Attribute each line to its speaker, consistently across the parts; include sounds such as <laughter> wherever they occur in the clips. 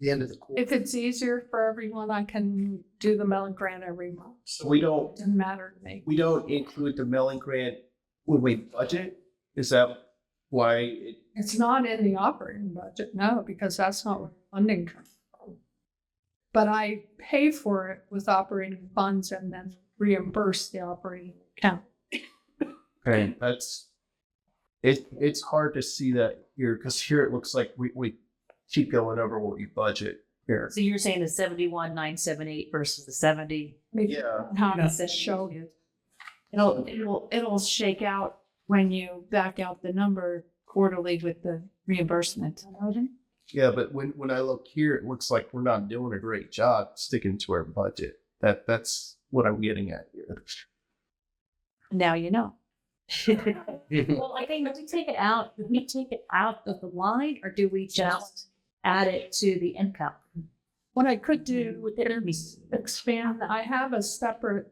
Speaker 1: the end of the quarter.
Speaker 2: If it's easier for everyone, I can do the Mellon grant every month.
Speaker 3: So we don't,
Speaker 2: Doesn't matter to me.
Speaker 3: we don't include the milling grant when we budget? Is that why it
Speaker 2: It's not in the operating budget, no, because that's not where funding comes from. But I pay for it with operating funds and then reimburse the operating account.
Speaker 3: Okay, that's it. It's hard to see that here because here it looks like we, we keep going over what we budget here.
Speaker 4: So you're saying the seventy-one, nine, seven, eight versus the seventy?
Speaker 2: Maybe
Speaker 3: Yeah.
Speaker 2: How
Speaker 4: No.
Speaker 2: does it show?
Speaker 4: It'll, it'll, it'll shake out when you back out the number quarterly with the reimbursement.
Speaker 3: Yeah, but when when I look here, it looks like we're not doing a great job sticking to our budget. That that's what I'm getting at here.
Speaker 4: Now you
Speaker 2: <laughs>
Speaker 4: know.
Speaker 1: <laughs>
Speaker 4: Well, I think, do we take it out, do we take it out of the line or do we just add it to the income? Mm-hmm.
Speaker 2: What I could do is expand, I have a separate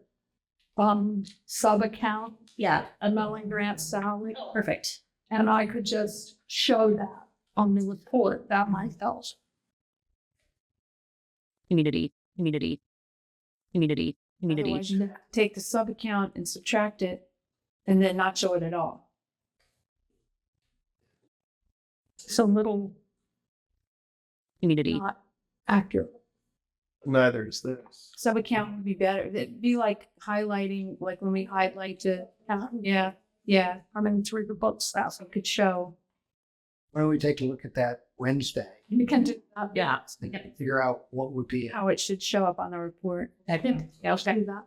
Speaker 2: um sub-account,
Speaker 4: Yeah,
Speaker 2: a Mellon grant salary,
Speaker 4: perfect.
Speaker 2: and I could just show that on the report, that might help.
Speaker 5: community, community, community, community.
Speaker 4: Otherwise, you Take the sub account and subtract it and then not show it at all.
Speaker 2: It's a little
Speaker 5: community.
Speaker 2: not accurate.
Speaker 3: Neither is this.
Speaker 4: Sub account would be better. It'd be like highlighting, like when we highlight to, yeah, yeah.
Speaker 2: I mean, through the books, that's,
Speaker 4: So it could show.
Speaker 1: Why don't we take a look at that Wednesday?
Speaker 2: you can do that.
Speaker 4: Yeah.
Speaker 1: and Figure out what would be,
Speaker 4: How it should show up on the report.
Speaker 2: Okay. Do that.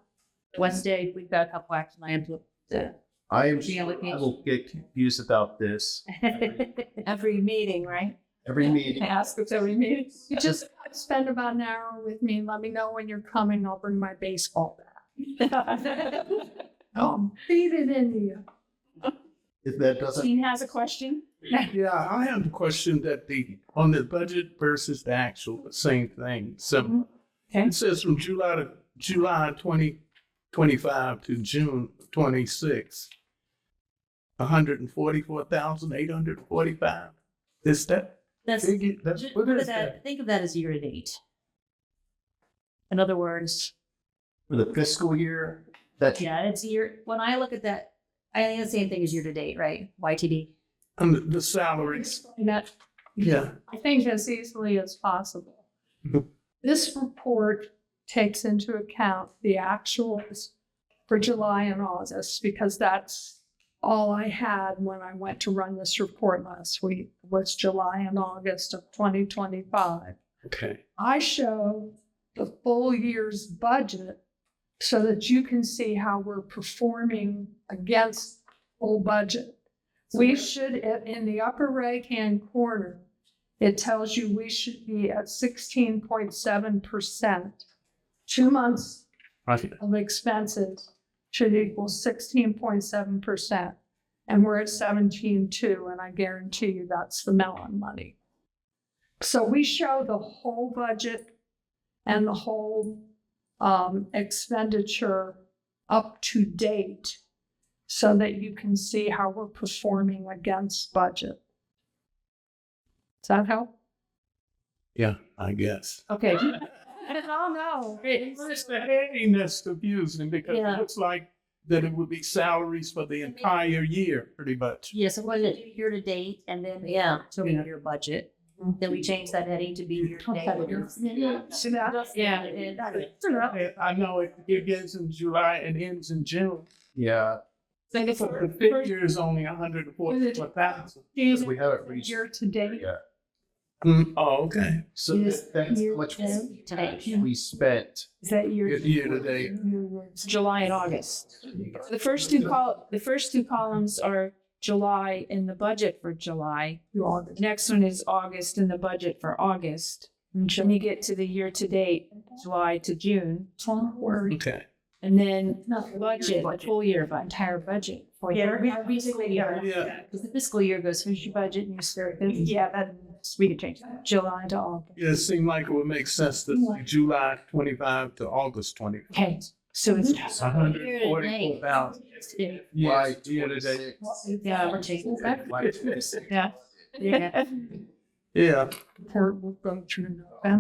Speaker 4: Wednesday, we've got a couple action items.
Speaker 3: I am.
Speaker 4: Yeah,
Speaker 3: sure
Speaker 4: with me.
Speaker 3: I will get confused about this
Speaker 4: Every meeting, right?
Speaker 3: every meeting.
Speaker 2: ask if every
Speaker 4: <laughs>
Speaker 2: meeting. You just spend about an hour with me and let me know when you're coming. I'll bring my baseball bat. Um, feed it into you.
Speaker 3: If that doesn't,
Speaker 4: Dean has a question?
Speaker 6: Yeah, I have a question that the, on the budget versus the actual, the same thing, so.
Speaker 4: Mm-hmm. Okay.
Speaker 6: It says from July to, July twenty twenty-five to June twenty-six. hundred and forty-four thousand eight hundred and forty-five. Is that,
Speaker 4: That's,
Speaker 6: figure- that's,
Speaker 4: Ju-
Speaker 6: what
Speaker 4: look at
Speaker 6: is
Speaker 4: that,
Speaker 6: that?
Speaker 4: think of that as year to date. In other words,
Speaker 3: for the fiscal year, that
Speaker 4: yeah, it's year, when I look at that, I think the same thing as year to date, right? YTD.
Speaker 6: And the- the salaries,
Speaker 2: Explain that,
Speaker 6: yeah,
Speaker 2: I think, as easily as possible.
Speaker 6: Mhm.
Speaker 2: This report takes into account the actuals for July and August because that's all I had when I went to run this report last week was July and August of 2025.
Speaker 6: okay.
Speaker 2: I show the full year's budget so that you can see how we're performing against full budget. We should, in in the upper right-hand corner, it tells you we should be at sixteen point seven percent. Two months
Speaker 6: Right.
Speaker 2: of expenses should equal sixteen point seven percent. And we're at seventeen two, and I guarantee you that's the melon money. So we show the whole budget and the whole um, expenditure up to date so that you can see how we're performing against budget. Does that help?
Speaker 6: Yeah, I guess.
Speaker 4: Okay.
Speaker 2: don't know.
Speaker 6: The heading that's confusing because
Speaker 4: Yeah.
Speaker 6: it looks like that it would be salaries for the entire year, pretty much.
Speaker 4: Yeah, so what is it, year to date, and then, yeah, Mm-hmm. to
Speaker 6: Yeah.
Speaker 4: your budget. Then we change that heading to be year to date.
Speaker 2: See that?
Speaker 4: Yeah. it is.
Speaker 6: I I know it begins in July and ends in June.
Speaker 3: yeah,
Speaker 2: So the
Speaker 6: But the figure is only a hundred and forty-four thousand.
Speaker 3: we haven't reached.
Speaker 2: Year to date.
Speaker 3: Yeah,
Speaker 6: Oh, okay.
Speaker 3: so
Speaker 4: Yes.
Speaker 3: that's how much
Speaker 4: Today.
Speaker 3: we spent.
Speaker 4: Is that year?
Speaker 6: Good year today.
Speaker 4: It's July and August. The first two col, the first two columns are July in the budget for July.
Speaker 2: You all
Speaker 4: The Next one is August in the budget for August. Then you get to the year to date, July to June.
Speaker 2: don't worry.
Speaker 6: Okay.
Speaker 4: And then
Speaker 2: No,
Speaker 4: budget, the full year, the entire budget. for
Speaker 2: Yeah,
Speaker 4: your-
Speaker 2: every-
Speaker 6: year. Yeah.
Speaker 4: Because the fiscal year goes, here's your budget, and you start, yeah, that, we could change that, July to August.
Speaker 6: Yeah, it seemed like it would make sense to say July twenty-five to August twenty.
Speaker 4: Okay, so it's.
Speaker 6: A hundred and forty-four thousand.
Speaker 3: Why
Speaker 6: Yes,
Speaker 3: year to
Speaker 6: twenty-six.
Speaker 3: date?
Speaker 4: <laughs> Yeah, we're taking that.
Speaker 3: Why-
Speaker 4: Yeah.
Speaker 6: Yeah.
Speaker 2: report will go through November.